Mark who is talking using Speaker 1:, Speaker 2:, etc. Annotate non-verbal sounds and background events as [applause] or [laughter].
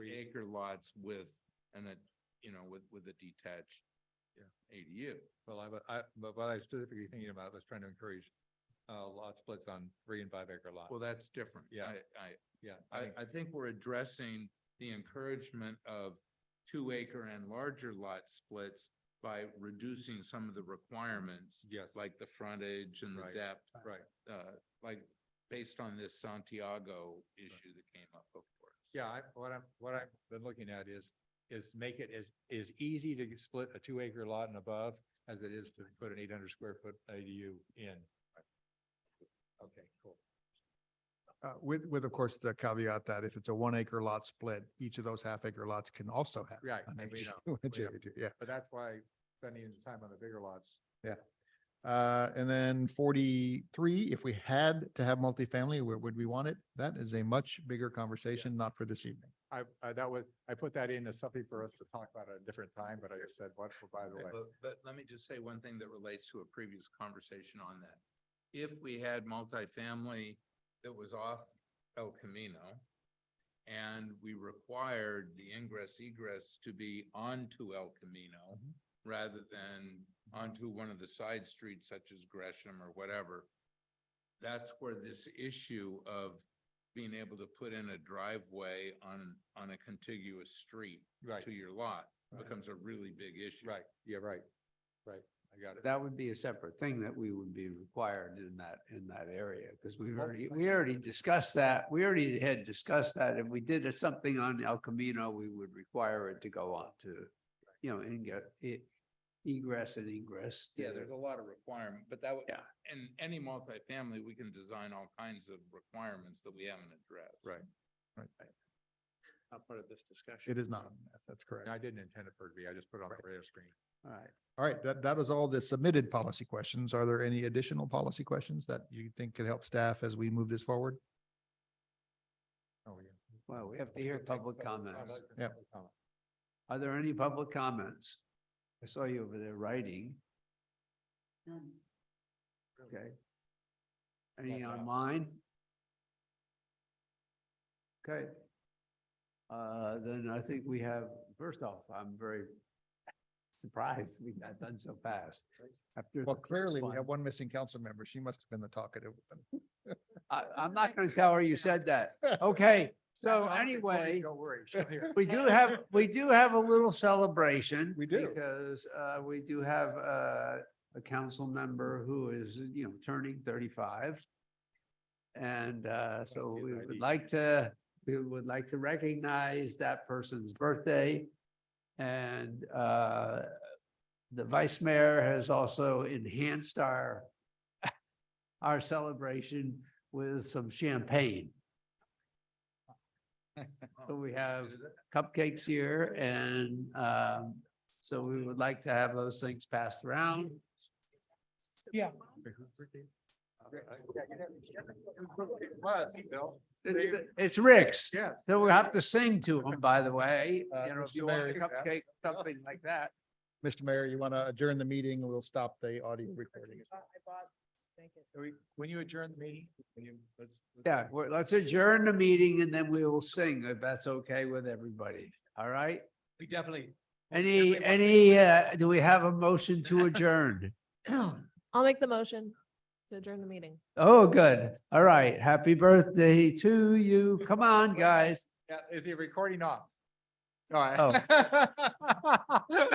Speaker 1: acre lots with, and a, you know, with, with a detached
Speaker 2: Yeah.
Speaker 1: ADU.
Speaker 2: Well, I, wa- I, but what I was specifically thinking about was trying to encourage, uh, lot splits on three and five acre lots.
Speaker 1: Well, that's different.
Speaker 2: Yeah.
Speaker 1: I, I,
Speaker 2: Yeah.
Speaker 1: I,
Speaker 2: think-
Speaker 1: I think we're addressing the encouragement of two acre and larger lot splits by reducing some of the requirements,
Speaker 2: Yes,
Speaker 1: like the frontage and
Speaker 2: Right.
Speaker 1: the depth,
Speaker 2: right.
Speaker 1: uh, like based on this Santiago issue that came up before. us.
Speaker 2: Yeah, I, what I'm, what I've been looking at is, is make it as, as easy to split a two acre lot and above as it is to put an eight hundred square foot ADU in. Okay, cool.
Speaker 3: Uh, with, with, of course, the caveat that if it's a one acre lot split, each of those half acre lots can also have.
Speaker 2: Right,
Speaker 3: an
Speaker 2: and we
Speaker 3: HGU, [laughs]
Speaker 2: know, we
Speaker 3: HGU, Yeah.
Speaker 2: But that's why spending the time on the bigger lots.
Speaker 3: Uh, and then forty-three, if we had to have multifamily, where would we want it? That is a much bigger conversation, not for this evening.
Speaker 2: I, I, that was, I put that in as something for us to talk about at a different time, but I just said, what, by the way.
Speaker 1: But, but let me just say one thing that relates to a previous conversation on that. If we had multifamily that was off El Camino and we required the ingress egress to be onto El Camino
Speaker 2: Mm-hmm.
Speaker 1: rather than onto one of the side streets such as Gresham or whatever, that's where this issue of being able to put in a driveway on, on a contiguous street
Speaker 2: Right,
Speaker 1: to your lot
Speaker 2: Right.
Speaker 1: becomes a really big issue.
Speaker 2: right, yeah, right, right, I got it.
Speaker 4: That would be a separate thing that we would be required in that, in that area, because we've already, we already discussed that. We already had discussed that. If we did something on El Camino, we would require it to go on to, you know, and get it egress and ingress.
Speaker 1: Yeah,
Speaker 4: to-
Speaker 1: there's a lot of requirement, but that would,
Speaker 4: Yeah.
Speaker 1: in any multifamily, we can design all kinds of requirements that we haven't addressed.
Speaker 2: Right.
Speaker 4: Not part of this discussion.
Speaker 3: It is not, that's correct.
Speaker 2: And I didn't intend it for it to be, I just put it on the radar screen.
Speaker 4: All right.
Speaker 3: All right, that, that was all the submitted policy questions. Are there any additional policy questions that you think could help staff as we move this forward?
Speaker 2: Oh, yeah.
Speaker 4: Well, we have to hear public comments.
Speaker 3: Yeah.
Speaker 4: Are there any public comments? I saw you over there writing. Okay. Any
Speaker 2: Not yet.
Speaker 4: online? Okay. Uh, then I think we have, first off, I'm very [laughs] surprised we got done so fast. After
Speaker 3: Well,
Speaker 4: the first
Speaker 3: clearly we
Speaker 4: one.
Speaker 3: have one missing council member. She must have been the talkative. [laughs] one.
Speaker 4: I, I'm not gonna tell her you said that. Okay, so anyway.
Speaker 2: Don't worry, she'll hear.
Speaker 4: [laughs] We do have, we do have a little celebration.
Speaker 3: We do.
Speaker 4: Because uh, we do have uh, a council member who is, you know, turning thirty-five. And uh, so
Speaker 2: his
Speaker 4: we
Speaker 2: ID.
Speaker 4: would like to, we would like to recognize that person's birthday. And uh, the vice mayor has also enhanced our our celebration with some champagne. So we have cupcakes here and um, so we would like to have those things passed around.
Speaker 2: Yeah.
Speaker 4: It's it's Rick's.
Speaker 2: Yes.
Speaker 4: So we have to sing to him, by the way,
Speaker 3: Uh,
Speaker 4: you know,
Speaker 3: Mr.
Speaker 4: if you want a
Speaker 3: Mayor.
Speaker 4: cupcake, something like that.
Speaker 3: Mr. Mayor, you want to adjourn the meeting? We'll stop the audio recording.
Speaker 2: When you adjourn the meeting, when you, let's. let's-
Speaker 4: Yeah, well, let's adjourn the meeting and then we will sing if that's okay with everybody. All right?
Speaker 2: We definitely.
Speaker 4: Any, any, uh, do we have a motion
Speaker 3: [clears throat]
Speaker 4: to adjourn?
Speaker 5: I'll make the motion to adjourn the meeting.
Speaker 4: Oh, good. All right. Happy birthday to you. Come on, guys.
Speaker 2: Yeah, is the recording off?
Speaker 4: Oh.
Speaker 2: All right.
Speaker 4: [laughs]